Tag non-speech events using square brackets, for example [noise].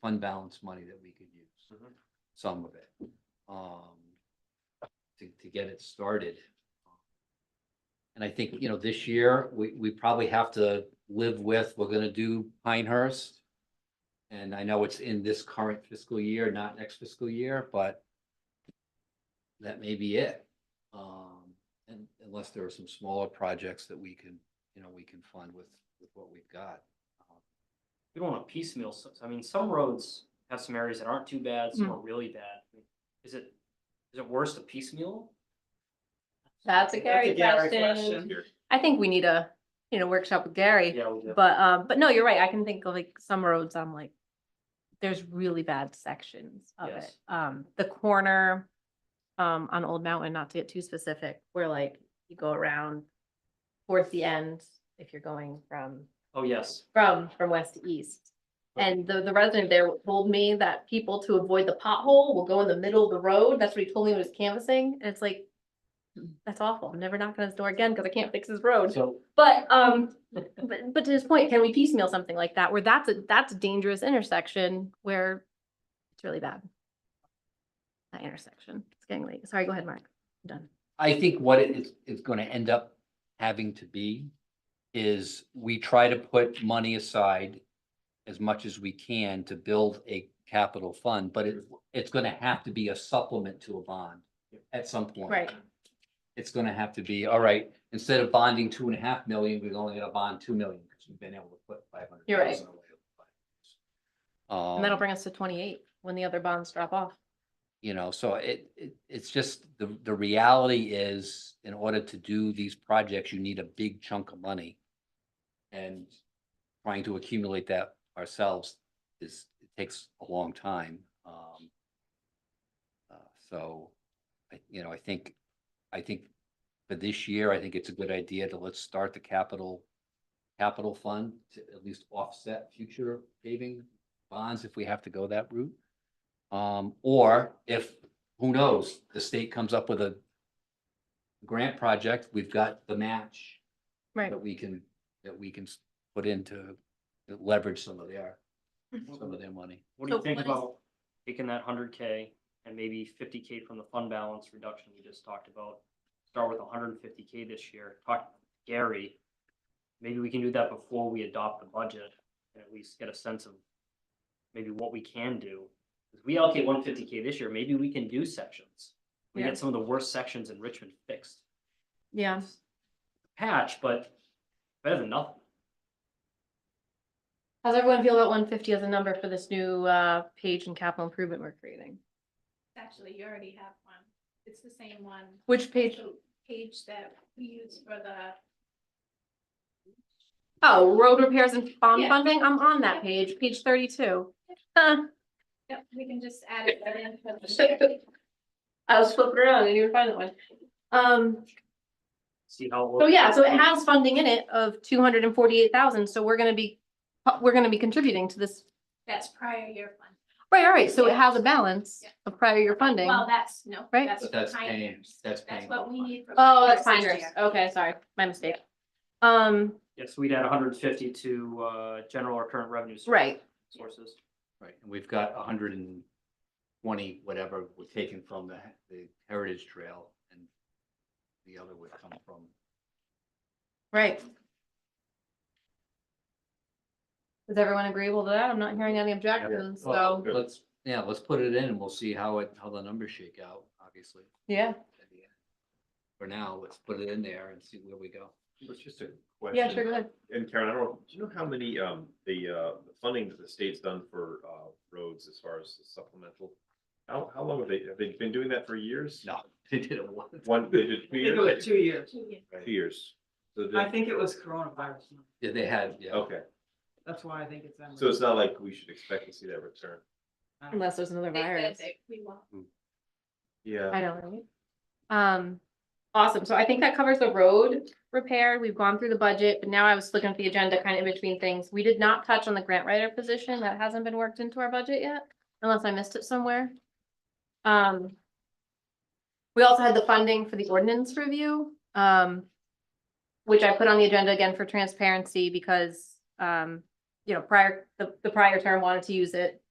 fund balance money that we could use, Mhm. some of it, um, to, to get it started. And I think, you know, this year, we, we probably have to live with, we're gonna do Pinehurst. And I know it's in this current fiscal year, not next fiscal year, but that may be it. Um, and unless there are some smaller projects that we can, you know, we can fund with, with what we've got. We don't want to piecemeal, s- I mean, some roads have some areas that aren't too bad, some are really bad. Is it, is it worse to piecemeal? That's a Gary question. I think we need a, you know, workshop with Gary, Yeah, we do. but, um, but no, you're right, I can think of like some roads, I'm like, there's really bad sections of it. Yes. Um, the corner, um, on Old Mountain, not to get too specific, where like you go around towards the end, if you're going from Oh, yes. from, from west to east. And the, the resident there told me that people to avoid the pothole will go in the middle of the road. That's what he told me when he was canvassing. And it's like, that's awful. I'm never knocking on his door again because I can't fix his road. So But, um, but, but to his point, can we piecemeal something like that where that's a, that's a dangerous intersection where it's really bad? That intersection. It's getting late. Sorry, go ahead, Mark. I'm done. I think what it is, is gonna end up having to be is we try to put money aside as much as we can to build a capital fund, but it, it's gonna have to be a supplement to a bond at some point. Right. It's gonna have to be, all right, instead of bonding two and a half million, we're only gonna bond two million, because we've been able to put five hundred You're right. thousand away. Um, And that'll bring us to twenty-eight when the other bonds drop off. you know, so it, it, it's just, the, the reality is, in order to do these projects, you need a big chunk of money. And trying to accumulate that ourselves is, it takes a long time, um. uh, So, I, you know, I think, I think for this year, I think it's a good idea to let's start the capital, capital fund to at least offset future paving bonds if we have to go that route. Um, or if, who knows, the state comes up with a grant project, we've got the match Right. that we can, that we can s- put into leverage some of their, some of their money. What do you So think what is- about taking that hundred K and maybe fifty K from the fund balance reduction you just talked about? Start with hundred and fifty K this year, talk to Gary. Maybe we can do that before we adopt the budget and at least get a sense of maybe what we can do. If we allocate one fifty K this year, maybe we can do sections. We Yeah. get some of the worst sections in Richmond fixed. Yeah. Patch, but better than nothing. How's everyone feel about one fifty as a number for this new uh page in capital improvement we're creating? Actually, you already have one. It's the same one. Which page? The Page that we use for the, Oh, road repairs and bond Yeah. funding, I'm on that Yeah. page, page thirty-two. Huh, yep, we can just add it right in for the. I was flipping around, I didn't even find that one. Um, See how. it so looks. yeah, so it has funding in it of two hundred and forty-eight thousand, so we're gonna be, we're gonna be contributing to this. That's prior year fund. Right, all right, so it Yeah. has a balance Yeah. of prior year funding. Well, that's, no. Right. But that's for paying- pioneers. that's paying what we for need. for Oh, that's fine, pioneers this year. okay, sorry, my mistake. Um, Yes, we'd add hundred and fifty to, uh, general or current revenue. source- Right. Sources. Right, and we've got a hundred and twenty, whatever, were taken from the, the Heritage Trail and the other would come from right. Is everyone agreeable to that? I'm not hearing any objections, so, Well, Let's, yeah, let's put it in and we'll see how it, how the numbers shake out, obviously. yeah. at the end. For now, let's put it in there and see where we go. [laughs] It's just a question. Yeah, sure, go ahead. And Karen, I don't, know, do you know how many, um, the, uh, the funding that the state's done for, uh, roads as far as the supplemental? How, how long have they, have they been doing that for years? No, they did it once. One, [laughs] they did two They do it years? two years. Two years. Two years. So they- I think it was coronavirus. Yeah, they had, yeah. Okay, That's why I think it's. that so much. it's not like we should expect to see that return. I don't know. Unless there's another They said virus. that we won't. Yeah. I don't know. Um, awesome. So I think that covers the road repair. We've gone through the budget, but now I was looking at the agenda kind of in between things. We did not touch on the grant writer position. That hasn't been worked into our budget yet, unless I missed it somewhere. Um, we also had the funding for the ordinance review, um, which I put on the agenda again for transparency because, um, you know, prior, the, the prior term wanted to use it.